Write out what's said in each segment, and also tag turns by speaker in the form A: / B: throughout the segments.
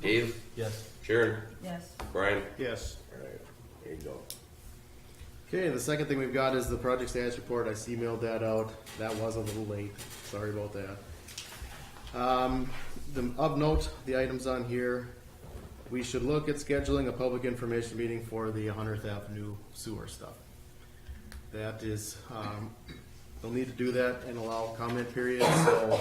A: Dave,
B: Yes.
A: Sharon,
C: Yes.
A: Brian.
D: Yes.
A: Alright, there you go.
D: Okay, the second thing we've got is the project status report. I emailed that out. That was a little late. Sorry about that. Um, the, of note, the items on here, we should look at scheduling a public information meeting for the 100th Avenue sewer stuff. That is, um, they'll need to do that and allow comment periods, so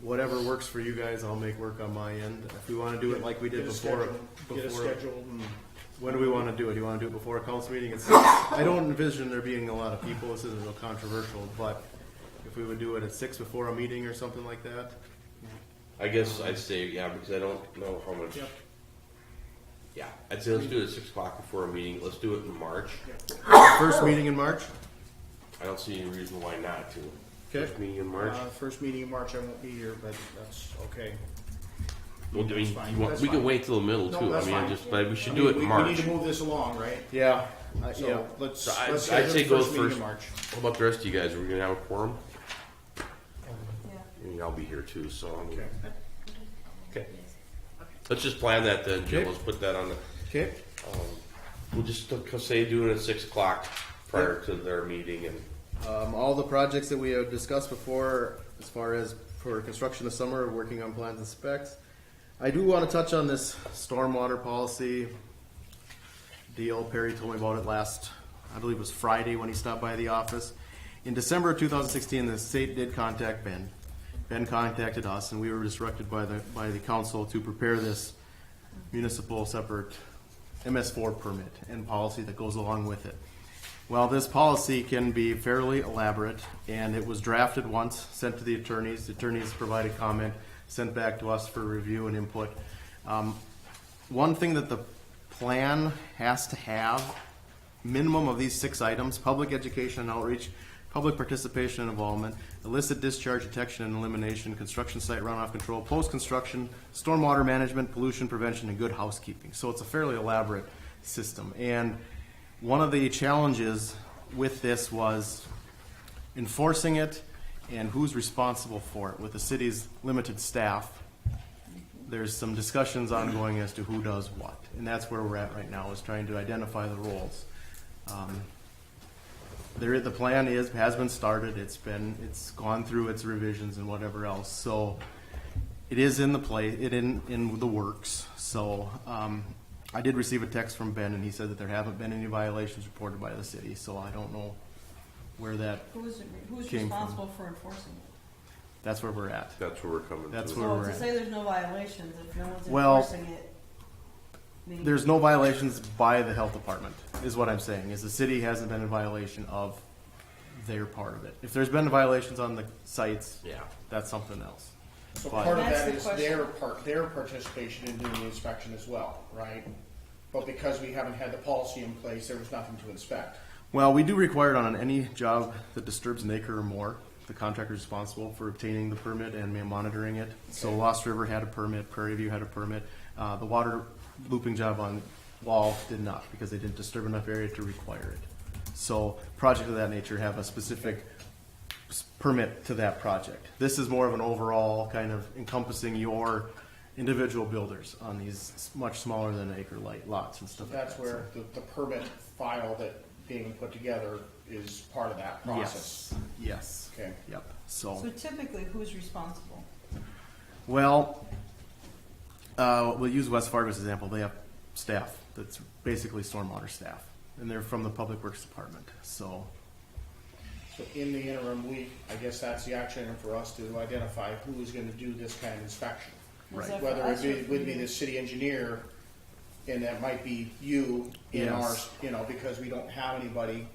D: whatever works for you guys, I'll make work on my end. If we wanna do it like we did
E: Get a
D: before.
E: schedule- Get a
D: before-
E: schedule and
D: when do we want to do it? Do you want to do it before a council meeting? It's, I don't envision there being a lot of people. This isn't real controversial, but if we would do it at six before a meeting or something like that,
A: I guess I'd say, yeah, because I don't know how much.
E: Yep.
A: Yeah, I'd say let's do it at six o'clock before a meeting. Let's do it in March.
D: first meeting in March.
A: I don't see any reason why not to.
D: Okay.
A: First meeting in March.
E: Uh, first meeting in March, I won't be here, but that's okay.
A: Well, I mean,
E: that's fine.
A: you want-
E: That's
A: we can
E: fine.
A: wait till the middle
E: No,
A: too. I
E: that's
A: mean, I
E: fine.
A: just, but we should
E: I
A: do
E: mean,
A: it
E: we-
A: in March.
E: We need to move this along, right?
D: Yeah,
E: Uh,
D: I- yeah.
E: So let's,
A: So I-
E: let's schedule
A: I'd say
E: the
A: go
E: first meeting
A: first.
E: in March.
A: How about the rest of you guys? Are we gonna have a quorum?
C: Yeah.
A: I mean, I'll be here too, so I'm.
E: Okay.
A: Okay. Let's just plan that then, Jim.
D: Okay.
A: Let's put that on the.
D: Okay.
A: We'll just uh, say do it at six o'clock prior to their meeting and.
D: Um, all the projects that we have discussed before, as far as for construction this summer, working on plans and specs. I do want to touch on this stormwater policy deal. Perry told me about it last, I believe it was Friday when he stopped by the office. In December of 2016, the state did contact Ben. Ben contacted us, and we were instructed by the by the council to prepare this municipal separate MS4 permit and policy that goes along with it. Well, this policy can be fairly elaborate, and it was drafted once, sent to the attorneys. The attorneys provided comment, sent back to us for review and input. Um, one thing that the plan has to have, minimum of these six items, public education and outreach, public participation and involvement, illicit discharge detection and elimination, construction site runoff control, post-construction, stormwater management, pollution prevention, and good housekeeping. So it's a fairly elaborate system. And one of the challenges with this was enforcing it and who's responsible for it. With the city's limited staff, there's some discussions ongoing as to who does what, and that's where we're at right now, is trying to identify the roles. Um, There, the plan is, has been started, it's been, it's gone through its revisions and whatever else, so it is in the play, it in, in the works, so, um, I did receive a text from Ben, and he said that there haven't been any violations reported by the city, so I don't know where that,
C: Who's, who's
D: Came from-
C: responsible for enforcing it?
D: that's where we're at.
A: That's where we're coming.
D: That's
A: to.
D: where
C: So
D: we're
C: to
D: at.
C: say there's no violations, if no one's
D: Well,
C: enforcing it. I mean,
D: There's no violations by the health department, is what I'm saying, is the city hasn't been in violation of their part of it. If there's been violations on the sites,
A: Yeah.
D: that's something else.
E: So
D: Fine.
E: part of
C: That's
E: that
C: the
E: is their
C: question.
E: part, their participation in doing the inspection as well, right? But because we haven't had the policy in place, there was nothing to inspect.
D: Well, we do require it on any job that disturbs an acre or more. The contractor is responsible for obtaining the permit and ma- monitoring it. So Lost River had a permit, Prairie View had a permit. Uh, the water looping job on Wall did not because they didn't disturb enough area to require it. So projects of that nature have a specific s- permit to that project. This is more of an overall kind of encompassing your individual builders on these s- much smaller than acre light lots and stuff like that.
E: That's where the, the permit file that being put together is part of that process.
D: Yes, yes.
E: Okay.
D: Yep,
C: So
D: so,
C: typically, who's responsible?
D: well, uh, we'll use West Fargo as an example, they have staff, that's basically stormwater staff, and they're from the Public Works Department, so,
E: So in the interim week, I guess that's the action item for us to identify who is gonna do this kind of inspection.
C: Is
D: Right.
C: that for
E: Whether
C: us
E: it
C: or
E: be,
C: for
E: would be
C: you?
E: the city engineer, and that might be you in
D: Yes.
E: ours, you know, because we don't have anybody.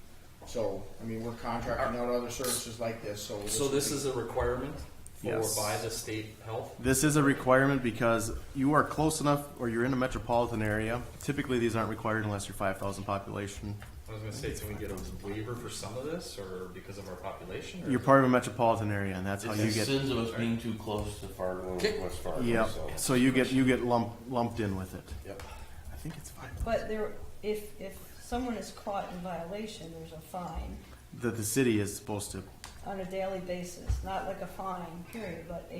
E: So, I mean, we're contracting out other services like this, so.
B: So
E: would
B: this
E: be-
B: is a requirement for
D: Yes.
B: by the state health?
D: This is a requirement because you are close enough, or you're in a metropolitan area, typically these aren't required unless you're five thousand population.
B: I was gonna say, can we get a waiver for some of this or because of our population? or-
D: You're part of a metropolitan area, and that's how you
A: It's the
D: get,
A: Oh, sins of us being too close to Fargo
B: Okay.
A: and West Fargo.
D: yeah,
A: so-
D: so you get, you get lumped, lumped in with it.
A: Yep.
D: I think it's five,
C: But there, if, if someone is caught in violation, there's a fine
D: that the city is supposed to
C: on a daily basis, not like a fine, period, but a